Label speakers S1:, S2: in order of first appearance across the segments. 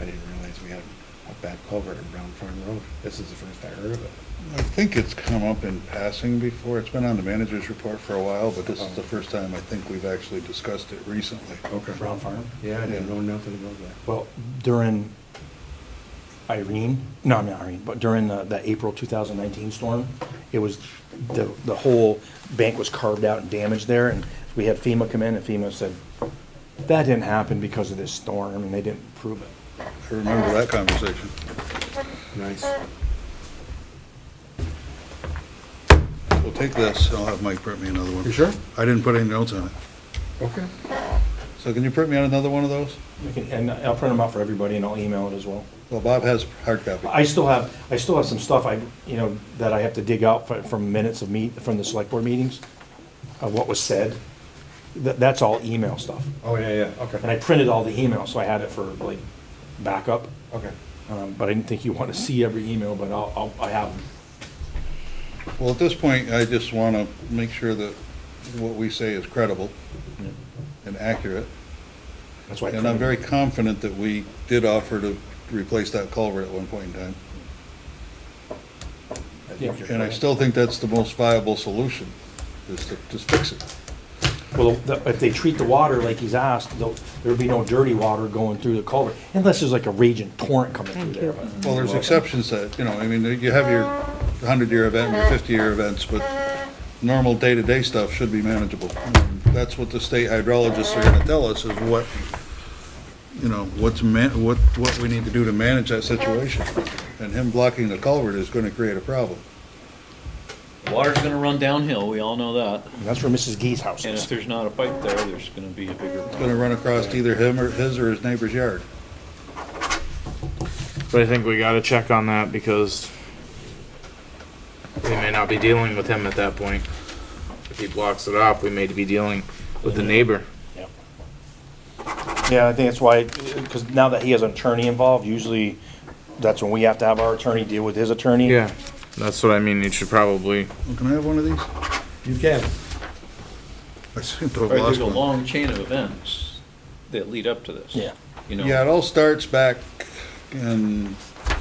S1: I didn't realize we had a bad culvert in Brown Farm Road. This is the first I heard of it.
S2: I think it's come up in passing before. It's been on the manager's report for a while, but this is the first time I think we've actually discussed it recently.
S3: Okay.
S1: Brown Farm? Yeah, I didn't know nothing about that.
S4: Well, during Irene, no, not Irene, but during the, the April 2019 storm, it was, the, the whole bank was carved out and damaged there, and we had FEMA come in, and FEMA said, that didn't happen because of this storm, and they didn't prove it.
S2: I remember that conversation.
S1: Nice.
S5: uh,
S2: We'll take this. I'll have Mike print me another one.
S3: You sure?
S2: I didn't put any notes on it.
S3: Okay.
S2: So can you print me out another one of those?
S4: We can- And I'll print them out for everybody, and I'll email it as well.
S2: Well, Bob has hard copy.
S4: I still have, I still have some stuff I, you know, that I have to dig out fro- from minutes of meet, from the select board meetings, of what was said. That, that's all email stuff.
S3: Oh, yeah, yeah,
S4: And
S3: okay,
S4: I printed all the emails, so I had it for like backup.
S3: okay.
S4: Um, but I didn't think you want to see every email, but I'll, I'll, I have them.
S2: Well, at this point, I just want to make sure that what we say is credible and accurate.
S4: That's why. I
S2: And I'm
S4: printed
S2: very
S4: them.
S2: confident that we did offer to replace that culvert at one point in time.
S4: Yeah.
S2: And I still think that's the most viable solution, is to just fix it.
S4: Well, the- if they treat the water like he's asked, there'll- there'll be no dirty water going through the culvert, unless there's like a raging torrent coming through
S5: Thank
S4: there.
S5: you.
S4: but-
S2: Well, there's exceptions that, you know, I mean, you have your 100-year event, your 50-year events, but normal day-to-day stuff should be manageable. And That's what the state hydrologists are going to tell us, is what, you know, what's, man- what, what we need to do to manage that situation. And him blocking the culvert is going to create a problem.
S6: Water's gonna run downhill, we all know that,
S4: And That's where Mrs. Gee's house
S6: and if
S4: is.
S6: there's not a pipe there, there's gonna be a bigger
S2: It's going to run across either him or his or his neighbor's yard.
S7: But I think we got to check on that because we may not be dealing with him at that point. If he blocks it off, we may be dealing with the neighbor.
S4: Yep. Yeah, I think that's why, because now that he has an attorney involved, usually that's when we have to have our attorney deal with his attorney.
S7: Yeah, that's what I mean. You should probably.
S2: Well, Can I have one of these?
S3: You can.
S2: I seem to have
S6: problem. There's
S2: lost
S6: a
S2: one.
S6: long chain of events that lead up to this.
S4: Yeah.
S6: You
S2: Yeah,
S6: know,
S2: it all starts back in,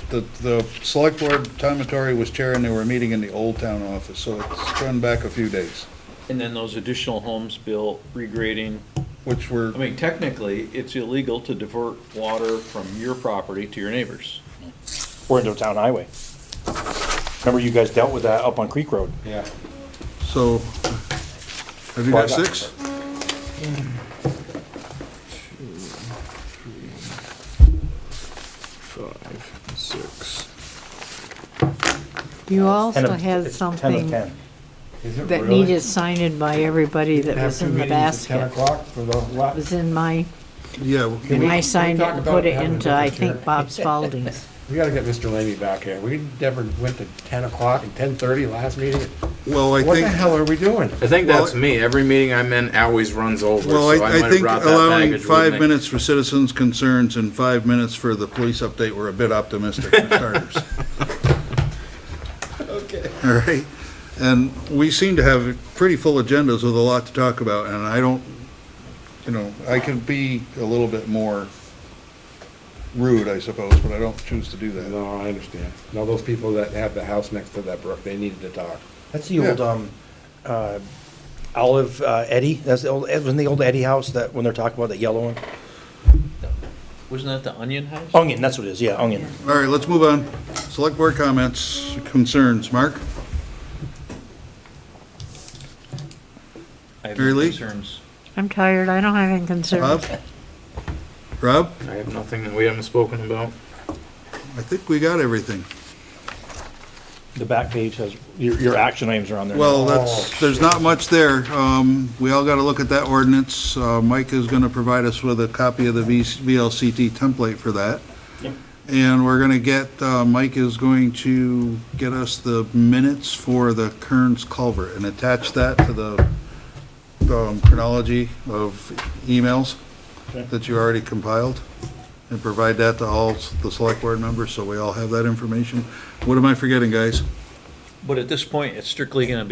S2: the, the select board, Tom Matori was chair and they were meeting in the old town office, so it's run back a few days,
S6: and then those additional homes built, regrading,
S2: which were,
S6: I mean, technically, it's illegal to divert water from your property to your neighbors.
S4: We're into a town highway. Remember you guys dealt with that up on Creek Road?
S3: Yeah.
S2: so, have you got six?
S7: Five, six.
S5: You
S4: Ten
S5: also
S4: of-
S5: had
S4: it's Ten of
S5: something
S4: ten.
S3: Is it
S5: that
S3: really?
S5: needed signed by everybody that
S3: Have
S5: was
S3: two
S5: in the
S3: meetings at Ten
S5: basket.
S3: o'clock for the
S5: It
S3: what?
S5: was in my,
S2: Yeah, well,
S3: Can
S5: and
S3: we-
S5: I
S3: we
S5: signed it
S3: talk
S5: and
S3: about
S5: put it
S3: having a
S5: into, I
S3: different
S5: think,
S3: chair?
S5: Bob Spalding's.
S3: We gotta get Mr. Lamy back here. We never went to ten o'clock and ten thirty last meeting.
S2: well, I
S3: What the
S2: think,
S3: hell are we doing?
S7: I think
S2: Well,
S7: that's me. Every meeting I'm in always runs over.
S2: well,
S7: so I,
S2: I,
S7: might
S2: I
S7: have
S2: think
S7: brought that
S2: allowing
S7: baggage with
S2: five
S7: me.
S2: minutes for citizens' concerns and five minutes for the police update were a bit optimistic for starters.
S3: Okay.
S2: All right, and we seem to have pretty full agendas with a lot to talk about, and I don't, you know, I could be a little bit more rude, I suppose, but I don't choose to do that.
S3: No, I understand. Now, those people that have the house next to that brook, they needed to talk.
S4: That's the old,
S2: Yeah.
S4: um, uh, Olive uh, Eddie, that's the old, it was in the old Eddie house that, when they're talking about that yellow one?
S6: Wasn't that the onion house?
S4: Onion, that's what it is, yeah, onion.
S2: All right, let's move on. Select board comments, concerns, Mark?
S6: I have
S2: Mary
S6: no
S2: Lee?
S6: concerns.
S5: I'm tired, I don't have any
S2: Bob?
S5: concerns.
S2: Rob,
S7: I have nothing that we haven't spoken about.
S2: I think we got everything.
S4: The back page has, your, your action items are on there.
S2: Well,
S3: Oh,
S2: that's, there's not much there. Um, we all gotta look at that ordinance. Uh, Mike is gonna provide us with a copy of the V- VLCT template for that.
S4: Yep.
S2: And we're gonna get, uh, Mike is going to get us the minutes for the Kearns culvert and attach that to the, um, chronology of emails
S4: Okay.
S2: that you already compiled and provide that to all s- the select board members, so we all have that information. What am I forgetting, guys?
S6: But at this point, it's strictly gonna be